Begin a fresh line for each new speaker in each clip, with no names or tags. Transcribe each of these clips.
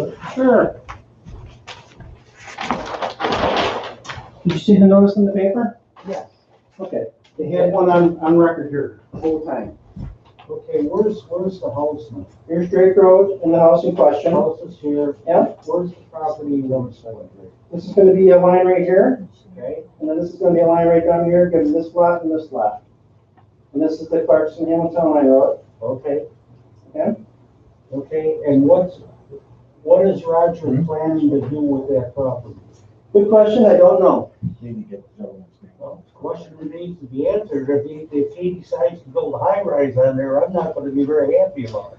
it?
Sure.
Did you see the notice in the paper?
Yes.
Okay.
They had one on, on record here the whole time.
Okay, where's, where's the house now?
Here's Drake Road and the house in
The
question.
house is here.
Yeah.
Where's the property you want to sell it?
This is gonna be a line right here,
Okay,
and then this is gonna be a line right down here, gives this lot and this lot. And this is the Clarkson Hamilton line road.
okay.
Yeah.
Okay, and what's, what is Roger
Hmm?
planning to do with that property?
Good question, I don't know.
Well, the question that needs to be answered, if he, if he decides to build a high rise on there, I'm not gonna be very happy about it.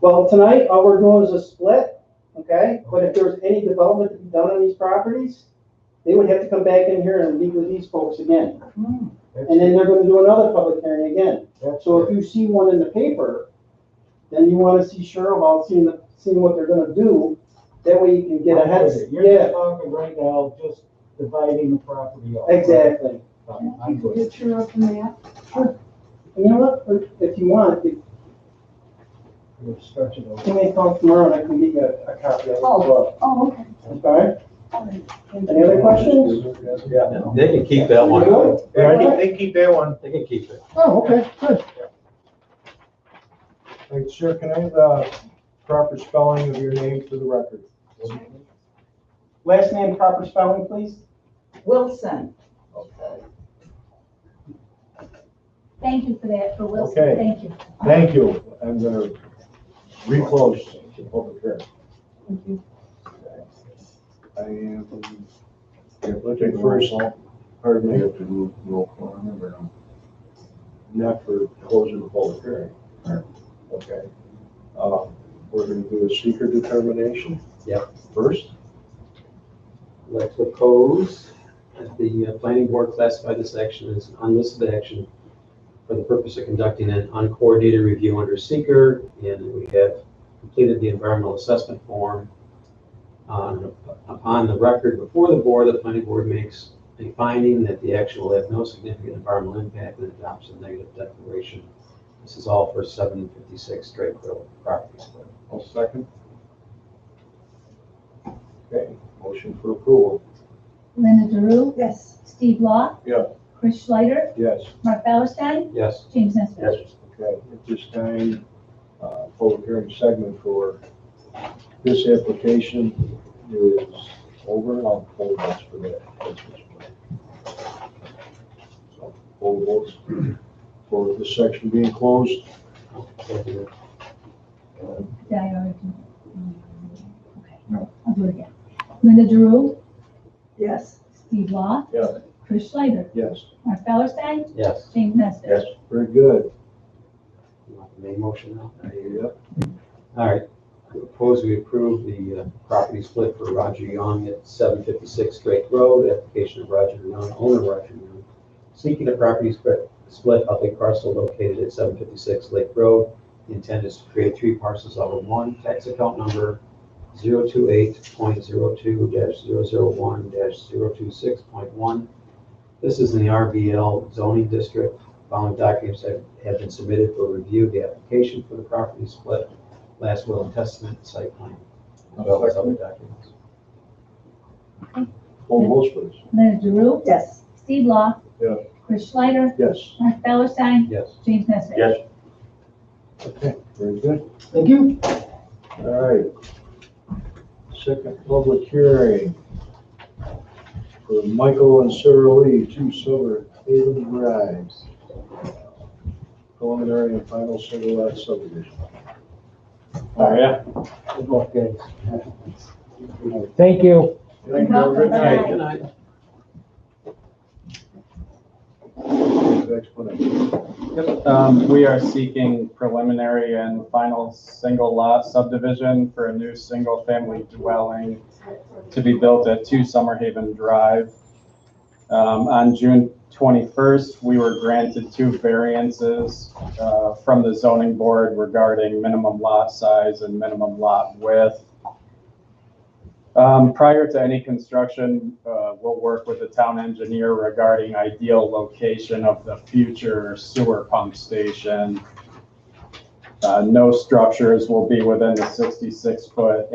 Well, tonight, all we're doing is a split, okay? But if there's any development to be done on these properties, they would have to come back in here and meet with these folks again.
Hmm.
And
That's-
then they're gonna do another public hearing again.
that's-
So if you see one in the paper, then you wanna see sure about seeing, the- seeing what they're gonna do, that way you can get ahead of it,
You're just
yeah,
talking right now, just dividing the property up.
exactly.
I'm- I'm
Take a
good.
picture of the map.
And you know what, If- if you want, if
We're stretching over.
you may call tomorrow and I can get you a, a copy of it as well,
Oh, okay.
okay?
All right.
Any other questions?
They can keep that
We're
one.
good?
Yeah, I think they keep that one.
They can keep it.
Oh, okay, good.
Like, sure, can I have the proper spelling of your name for the record?
Last name, proper spelling, please?
Wilson.
Okay.
Thank you for that, for
Okay.
Wilson. Thank you.
Thank you. I'm gonna reclose the public hearing. I am, looking first, pardon me,
have to move roll call, I remember now.
not for closing the public hearing. Okay. Uh, We're gonna do a seeker determination?
Yep.
First?
Let's propose that the uh, planning board classify this action as an unlisted action for the purpose of conducting an uncoordinated review under seeker, and we have completed the environmental assessment form. On- Upon the record before the board, the planning board makes a finding that the action will have no significant environmental impact and adopts a negative declaration. This is all for seven fifty-six Drake Road property split.
I'll second. Okay, motion for approval.
Uh, Linda Drew. Yes. Steve Law.
Yeah.
Chris Schleider,
Yes.
Mark Ballerstein,
Yes.
James Nesbitt.
Okay, at this time, uh, public hearing segment for this application is over. I'll poll votes for that. That's what's planned. So, Poll votes for this section being closed.
Did I already do that? Okay.
No.
I'll do it again. Linda Drew.
Yes.
Steve Law.
Yeah.
Chris Schleider,
Yes,
Mark Ballerstein,
Yes.
James Nesbitt.
Yes. very good.
You want the main motion now?
Yep.
All right. Propose we approve the uh, property split for Roger Young at seven fifty-six Drake Road, application of Roger Young, owner Roger Young, seeking a property split, split of a parcel located at seven fifty-six Lake Road. The intent is to create three parcels out of one, tax account number zero two eight point zero two dash zero zero one dash zero two six point one. This is in the RBL zoning district. Following documents have, have been submitted for review, the application for the property split, last will and testament, site plan. as well as other documents.
Poll votes please.
Linda Drew.
Yes.
Steve Law.
Yeah.
Chris Schleider,
Yes,
Mark Ballerstein,
Yes.
James Nesbitt.
Yes. okay, very good.
Thank you.
All right. Second public hearing for Michael and Sarah Lee, two Silver Haven Drive. Preliminary and final single lot subdivision. Oh, yeah?
Okay.
Thank you.
Thank you.
Welcome.
Good night.
Good
night.
Next one.
Yep, um, we are seeking preliminary and final single lot subdivision for a new single-family dwelling to be built at Two Summer Haven Drive. Um, on June twenty-first, we were granted two variances, uh, from the zoning board regarding minimum lot size and minimum lot width. Um, prior to any construction, uh, we'll work with the town engineer regarding ideal location of the future sewer pump station. Uh, no structures will be within the sixty-six foot